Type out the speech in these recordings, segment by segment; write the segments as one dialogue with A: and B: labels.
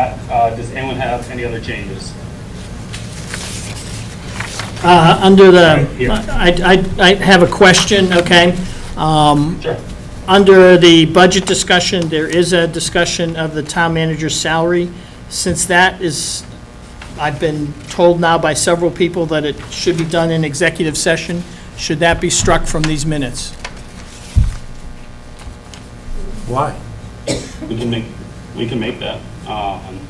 A: Uh, Does anyone have any other changes?
B: Uh, Under the,
A: Right, yeah.
B: I, I- I have a question, okay? Um,
A: Sure.
B: Under the budget discussion, there is a discussion of the town manager's salary. Since that is, I've been told now by several people that it should be done in executive session, should that be struck from these minutes?
C: Why?
A: We can make, we can make that. Um,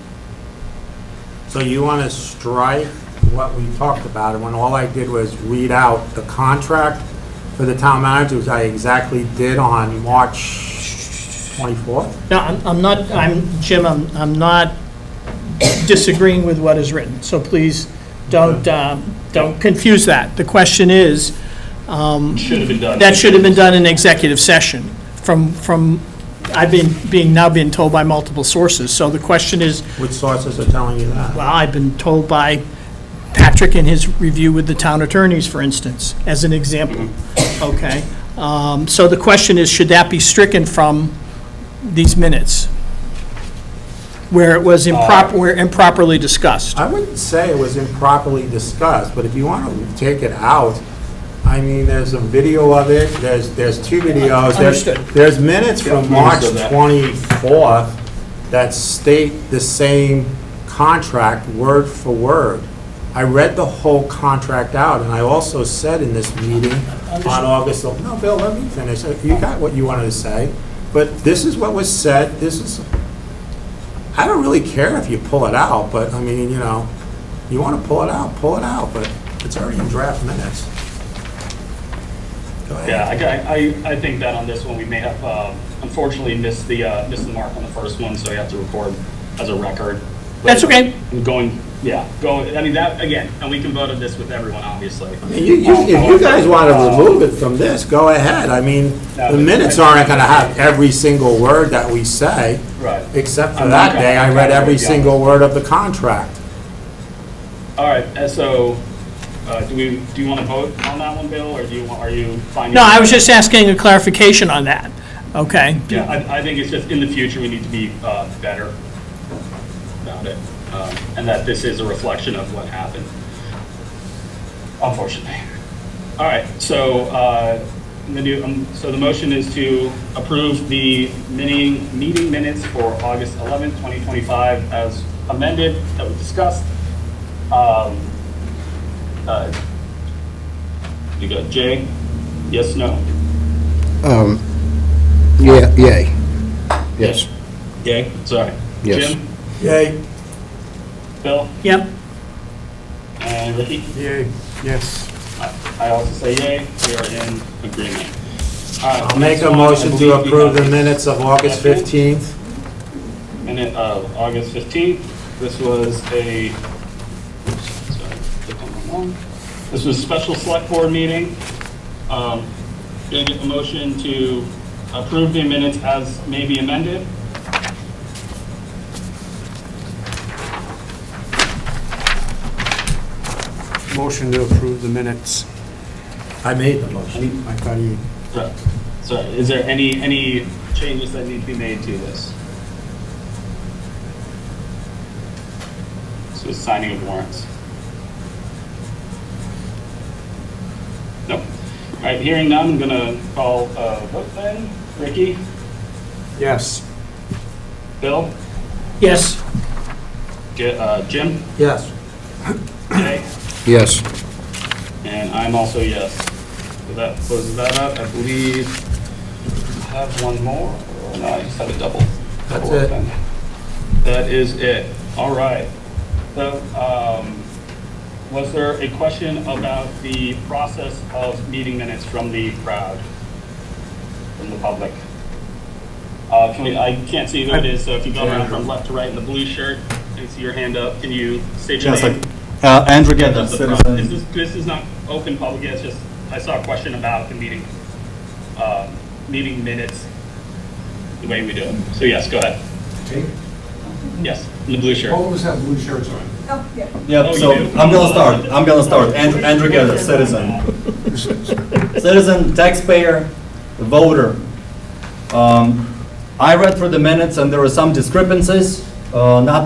C: So you want to strike what we talked about, and when all I did was read out the contract for the town manager, which I exactly did on March 24th?
B: No, I'm I'm not, I'm, Jim, I'm, I'm not disagreeing with what is written, so please don't, um, don't confuse that. The question is,
A: Should have been done.
B: That should have been done in executive session, from, from, I've been, being, now being told by multiple sources. So the question is,
C: Which sources are telling you that?
B: well, I've been told by Patrick in his review with the town attorneys, for instance, as an example, okay? Um, So the question is, should that be stricken from these minutes? Where it was improper, where improperly discussed?
C: I wouldn't say it was improperly discussed, but if you want to take it out, I mean, there's a video of it, there's, there's two videos. there's-
B: Understood.
C: There's minutes from
A: Yeah,
C: March
A: understood that.
C: 24th that state the same contract word for word. I read the whole contract out, and I also said in this meeting on August, el- no, Bill, let me finish. You got what you wanted to say, but this is what was said, this is, I don't really care if you pull it out, but, I mean, you know, you want to pull it out, pull it out, but it's already in draft minutes. Go ahead.
A: Yeah, I, I, I think that on this one, we may have uh, unfortunately missed the, uh, missed the mark on the first one, so we have to record as a record.
B: That's okay.
A: I'm Going, yeah, going, I mean, that, again, and we can vote on this with everyone, obviously.
C: You, you, if you guys want to remove it from this, go ahead. I mean, the minutes aren't going to have every single word that we say.
A: Right.
C: Except for
A: I'm
C: that
A: not-
C: day, I read every single word of the contract.
A: All right, and so, uh, do we, do you want to vote on that one, Bill, or do you, want- are you finding?
B: No, I was just asking a clarification on that, okay?
A: Yeah, I, I think it's just in the future, we need to be uh, better about it, um, and that this is a reflection of what happened, unfortunately. All right, so, uh, the new, um, so the motion is to approve the mini, meeting minutes for August 11th, 2025 as amended, that we discussed. Um, uh, You got Jay? Yes, no?
D: Um, yeah, yay. Yes.
A: Yay, sorry.
D: Yes.
A: Jim?
C: Yay.
A: Bill?
B: Yep,
A: And Ricky?
C: Yay, yes.
A: I I also say yay, we are in agreement. All right,
C: I'll make
A: next
C: a
A: one, I
C: motion
A: believe
C: to
A: we
C: approve the
A: have
C: minutes of August 15th.
A: Minute of August 15th. This was a, sorry, click on the wrong. this was a special select board meeting. Um, Gonna get a motion to approve the minutes as may be amended.
E: Motion to approve the minutes.
C: I made the motion. I thought you.
A: So, so is there any, any changes that need to be made to this? So it's signing of warrants. Nope. All right, hearing none, I'm gonna call, uh, vote then. Ricky?
E: Yes.
A: Bill?
B: yes.
A: Ge- uh, Jim?
C: Yes.
A: Jay?
D: Yes.
A: And I'm also yes. So that closes that up. I believe I have one more, or no, I just have a double.
C: That's
A: double
C: it.
A: open. That is it. All right. So, um, was there a question about the process of meeting minutes from the crowd, from the public? Uh, can we, I can't see who it is, so if you go around from left to right in the blue shirt and see your hand up, can you state your
F: Yes,
A: name?
F: like, uh, Andrew Geddes,
A: That's the problem. This
F: citizen.
A: is, this is not open public, it's just, I saw a question about the meeting, um, meeting minutes, the way we do it. So yes, go ahead. Yes, in the blue shirt.
G: All of us have blue shirts on.
H: Oh, yeah.
A: Oh,
F: Yep,
A: you
F: Oh, so
A: do? Oh,
F: I'm gonna start, I'm gonna start. Andrew, Andrew Geddes, citizen. Citizen, taxpayer, voter. Um, I read through the minutes and there were some discrepancies, uh, not